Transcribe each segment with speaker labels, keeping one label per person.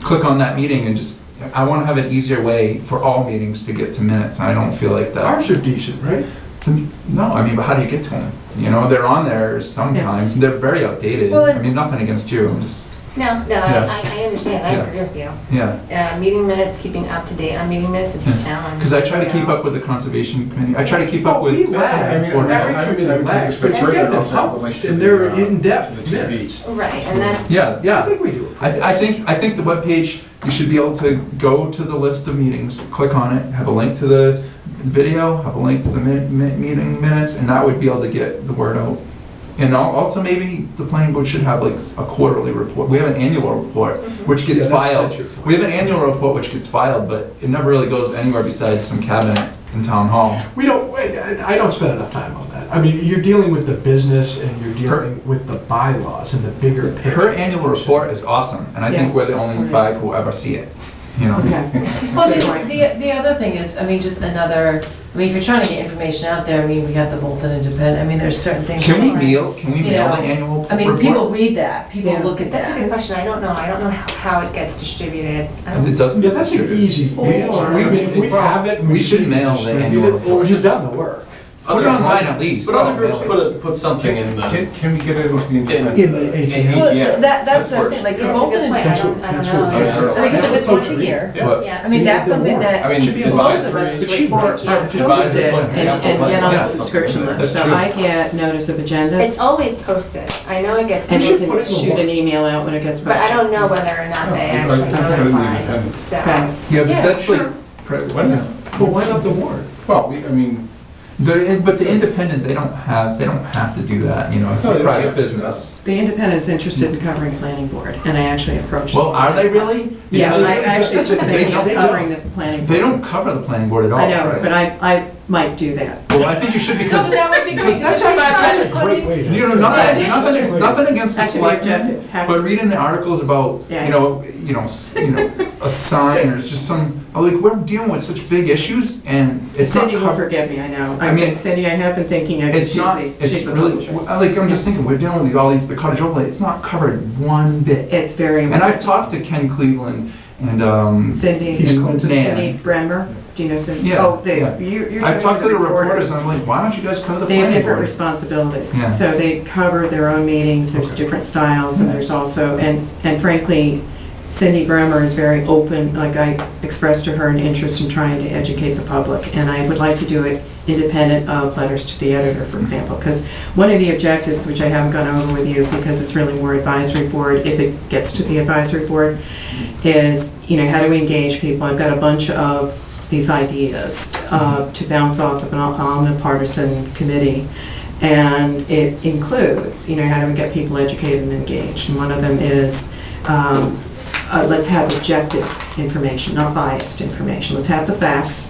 Speaker 1: click on that meeting and just, I want to have an easier way for all meetings to get to minutes, and I don't feel like that.
Speaker 2: Ours are decent, right?
Speaker 1: No, I mean, but how do you get to them? You know, they're on there sometimes, and they're very outdated.
Speaker 3: Well,
Speaker 1: I mean, nothing against you, I'm just,
Speaker 3: No, no,
Speaker 1: Yeah.
Speaker 3: I, I understand, I
Speaker 1: Yeah.
Speaker 3: agree with you.
Speaker 1: yeah.
Speaker 3: Uh, meeting minutes, keeping up to date on meeting minutes, it's a challenge.
Speaker 1: Because I try to
Speaker 3: you
Speaker 1: keep
Speaker 3: know.
Speaker 1: up with the conservation committee, I try to keep up
Speaker 2: Oh, we
Speaker 1: with.
Speaker 2: lag.
Speaker 4: I mean,
Speaker 1: Or-
Speaker 4: every committee lacks, but
Speaker 3: we're
Speaker 4: they're
Speaker 2: them
Speaker 4: also
Speaker 2: published
Speaker 4: published
Speaker 2: and
Speaker 4: in
Speaker 2: they're
Speaker 4: the, uh,
Speaker 2: in-depth
Speaker 4: the
Speaker 2: minutes.
Speaker 4: TVs.
Speaker 3: Right, and that's.
Speaker 1: Yeah,
Speaker 2: I
Speaker 1: yeah.
Speaker 2: think we do.
Speaker 1: I, I think, I think the webpage, you should be able to go to the list of meetings, click on it, have a link to the video, have a link to the min, min- meeting minutes, and that would be able to get the word out. And al- also maybe the planning board should have like a quarterly report, we have an annual report,
Speaker 5: Mm-hmm.
Speaker 1: which
Speaker 2: Yeah,
Speaker 1: gets
Speaker 2: that's-
Speaker 1: filed.
Speaker 2: that's your point.
Speaker 1: We have an annual report which gets filed, but it never really goes anywhere besides some cabinet in town hall.
Speaker 2: We don't, wait, I I don't spend enough time on that. I mean, you're dealing with the business and you're dealing with the bylaws and the bigger picture.
Speaker 1: Her annual report is awesome, and I think
Speaker 6: Yeah.
Speaker 1: we're the only five who ever see it, you know?
Speaker 6: Okay.
Speaker 5: Well, the, the, the other thing is, I mean, just another, I mean, if you're trying to get information out there, I mean, we got the Bolton Independent, I mean, there's certain things.
Speaker 1: Can we
Speaker 5: that-
Speaker 1: mail, can we
Speaker 5: You
Speaker 1: mail the
Speaker 5: know,
Speaker 1: annual
Speaker 5: I mean, people
Speaker 1: report?
Speaker 5: read that, people
Speaker 6: Yeah.
Speaker 5: look at
Speaker 3: That's a good
Speaker 5: that.
Speaker 3: question, I don't know, I don't know how, how it gets distributed. I
Speaker 1: And
Speaker 3: don't-
Speaker 1: It doesn't.
Speaker 2: Yeah, that's an easy
Speaker 6: Or-
Speaker 2: answer. I mean, if we have it.
Speaker 1: We should
Speaker 2: can
Speaker 1: mail the
Speaker 2: distribute
Speaker 1: annual
Speaker 2: it, Or
Speaker 1: report.
Speaker 2: you've done the work.
Speaker 1: Put it online at least.
Speaker 7: But other groups put, a- put something in the,
Speaker 4: Can, can we get it with the independent?
Speaker 2: In the ATM.
Speaker 5: Well, That,
Speaker 7: ATM.
Speaker 5: that's
Speaker 7: That's
Speaker 5: what I'm saying, like, the
Speaker 3: Yeah, it's a good
Speaker 5: Bolton,
Speaker 3: point,
Speaker 5: Independent-
Speaker 3: I don't, I
Speaker 2: That's
Speaker 3: don't
Speaker 2: what-
Speaker 7: I mean, I
Speaker 3: know.
Speaker 7: don't-
Speaker 5: I mean, because if it's once a
Speaker 2: Yeah.
Speaker 5: year,
Speaker 7: yeah.
Speaker 5: I
Speaker 3: Yeah,
Speaker 5: mean,
Speaker 2: Yeah,
Speaker 5: that's
Speaker 2: the
Speaker 5: something
Speaker 2: warrant.
Speaker 5: that.
Speaker 7: I mean,
Speaker 5: should be Most of
Speaker 7: advisory-
Speaker 5: us
Speaker 2: But she
Speaker 5: report.
Speaker 2: works-
Speaker 5: are
Speaker 6: Post it
Speaker 5: posted.
Speaker 6: and, and get on the subscription
Speaker 1: That's
Speaker 6: list, so
Speaker 1: true.
Speaker 6: I get notice of
Speaker 3: it's
Speaker 6: agendas
Speaker 3: always posted, I know it gets
Speaker 6: and
Speaker 2: should
Speaker 3: posted,
Speaker 6: you
Speaker 2: put it
Speaker 6: can
Speaker 2: in the
Speaker 6: shoot an
Speaker 2: warrant.
Speaker 6: email out when it gets
Speaker 3: but I
Speaker 6: posted.
Speaker 3: don't know whether or not they
Speaker 4: Yeah, I- I
Speaker 3: actually
Speaker 4: put it in the
Speaker 3: notify,
Speaker 4: appendix.
Speaker 3: so.
Speaker 6: Okay.
Speaker 1: Yeah, but
Speaker 5: Yeah,
Speaker 1: that's like,
Speaker 5: sure.
Speaker 1: pri-
Speaker 4: Why not?
Speaker 2: But why not the warrant?
Speaker 4: Well, we, I mean,
Speaker 1: the, but the independent, they don't have, they don't have to do that, you know, it's
Speaker 4: No,
Speaker 1: a
Speaker 4: they don't
Speaker 1: private
Speaker 4: have to do
Speaker 1: business.
Speaker 6: The independent's interested in covering planning board, and I actually approached.
Speaker 1: Well,
Speaker 6: them.
Speaker 1: are they really?
Speaker 6: Yeah,
Speaker 1: Because
Speaker 6: I actually just
Speaker 1: they
Speaker 6: think
Speaker 1: don't-
Speaker 6: of covering the planning.
Speaker 1: They
Speaker 6: board.
Speaker 1: don't cover the planning board at all,
Speaker 6: I know,
Speaker 1: right?
Speaker 6: but I, I might do that.
Speaker 1: Well, I think you should
Speaker 5: No,
Speaker 1: because,
Speaker 5: that would be great.
Speaker 1: because
Speaker 5: That's
Speaker 2: That's a great way to.
Speaker 1: You know, nothing,
Speaker 5: Yeah.
Speaker 1: nothing, nothing against the
Speaker 6: That could be
Speaker 1: selectmen,
Speaker 6: objective.
Speaker 1: but reading the articles about,
Speaker 6: Yeah.
Speaker 1: you know, you know, s- you know, a sign or just some, I'm like, we're dealing with such big issues and it's not
Speaker 6: Cindy will
Speaker 1: covered.
Speaker 6: forgive me, I know.
Speaker 1: I
Speaker 6: I
Speaker 1: mean-
Speaker 6: mean, Cindy, I have been thinking I could
Speaker 1: It's
Speaker 6: she's
Speaker 1: not,
Speaker 6: the,
Speaker 1: it's
Speaker 6: she's the
Speaker 1: really,
Speaker 6: publisher.
Speaker 1: I- like, I'm just thinking, we're dealing with all these, the cottage overlay, it's not covered one bit.
Speaker 6: It's very
Speaker 1: And I've
Speaker 6: important.
Speaker 1: talked to Ken Cleveland and, um,
Speaker 6: Cindy,
Speaker 2: He's
Speaker 6: and
Speaker 2: Clinton.
Speaker 6: Cindy
Speaker 1: Nan.
Speaker 6: Bremmer, do you know Cindy?
Speaker 1: Yeah,
Speaker 6: Oh, they,
Speaker 1: yeah.
Speaker 6: you, you're.
Speaker 1: I've talked to the reporters
Speaker 6: reporters.
Speaker 1: and I'm like, why don't you guys cover the
Speaker 6: They have
Speaker 1: planning
Speaker 6: different
Speaker 1: board?
Speaker 6: responsibilities.
Speaker 1: Yeah.
Speaker 6: So they cover their own meetings, there's different styles, and there's also, and, and frankly, Cindy Bremer is very open, like I expressed to her an interest in trying to educate the public, and I would like to do it independent of letters to the editor, for example, because one of the objectives, which I haven't gone over with you, because it's really more advisory board, if it gets to the advisory board, is, you know, how do we engage people? I've got a bunch of these ideas uh, to bounce off of an omnipartisan committee. And it includes, you know, how do we get people educated and engaged? And one of them is, um, uh, let's have objective information, not biased information. Let's have the facts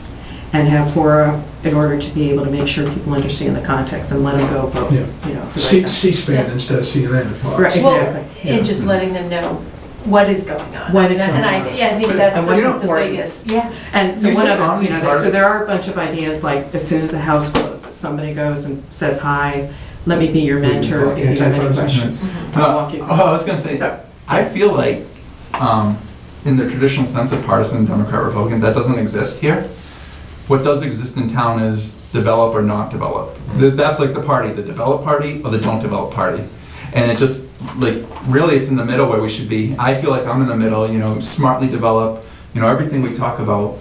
Speaker 6: and have fora in order to be able to make sure people understand the context and let them go vote,
Speaker 2: Yeah.
Speaker 6: you know. the right
Speaker 2: C-
Speaker 6: thing.
Speaker 2: C-SPAN instead of CNN and Fox.
Speaker 6: Right,
Speaker 5: Well,
Speaker 6: exactly.
Speaker 5: and just letting them know what is going on.
Speaker 6: What is
Speaker 5: And I-
Speaker 6: going
Speaker 5: And I,
Speaker 6: on.
Speaker 5: yeah, I think
Speaker 1: But-
Speaker 5: that's
Speaker 6: and what's
Speaker 5: the- the
Speaker 6: important.
Speaker 5: biggest, yeah.
Speaker 6: And so
Speaker 1: You
Speaker 6: one
Speaker 1: said
Speaker 6: other, you know, there-
Speaker 1: omnipart-
Speaker 6: so there are a bunch of ideas, like as soon as the house closes, somebody goes and says, hi, let me be Uh, your mentor if you have any questions. I'll
Speaker 1: No,
Speaker 6: walk you.
Speaker 1: oh, I was gonna say, I feel like, um, in the traditional sense of partisan Democrat Republican, that doesn't exist here. What does exist in town is develop or not develop.
Speaker 6: Mm-hmm.
Speaker 1: There's, that's like the party, the develop party or the don't develop party. And it just, like, really, it's in the middle where we should be. I feel like I'm in the middle, you know, smartly develop, you know, everything we talk about,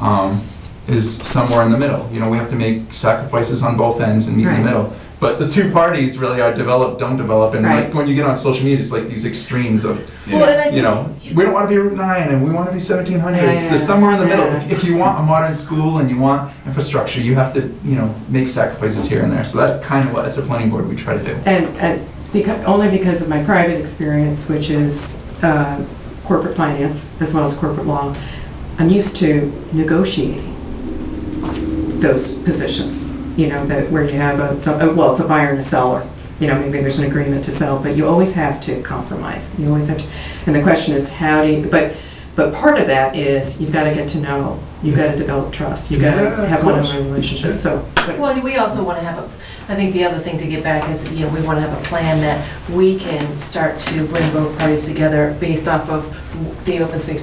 Speaker 1: um, is somewhere in the middle. You know, we have to make sacrifices on both ends and meet in
Speaker 6: Right.
Speaker 1: the middle. But the two parties really are develop, don't develop, and
Speaker 6: Right.
Speaker 1: like when you get on social media, it's like these extremes of,
Speaker 7: Yeah.
Speaker 5: Well, and I
Speaker 1: you know,
Speaker 5: think-
Speaker 1: we don't want to be Route Nine and we want to be seventeen hundreds. There's
Speaker 6: Yeah.
Speaker 1: somewhere in the middle.
Speaker 6: Yeah.
Speaker 1: If, if you want a modern school and you want infrastructure, you have to, you know, make sacrifices here and there. So that's kind of what as a planning board we try to do.
Speaker 6: And, and because, only because of my private experience, which is uh, corporate finance as well as corporate law, I'm used to negotiating those positions, you know, that where you have a, so- uh, well, it's a buyer and a seller. You know, maybe there's an agreement to sell, but you always have to compromise. You always have to, and the question is how do you, but, but part of that is you've got to get to know, you've got to develop trust, you've got
Speaker 2: Yeah,
Speaker 6: to
Speaker 2: of
Speaker 6: have
Speaker 2: course.
Speaker 6: one-on-one relationships, so. but-
Speaker 5: Well, and we also want to have a, I think the other thing to get back is, you know, we want to have a plan that we can start to bring both parties together based off of the open space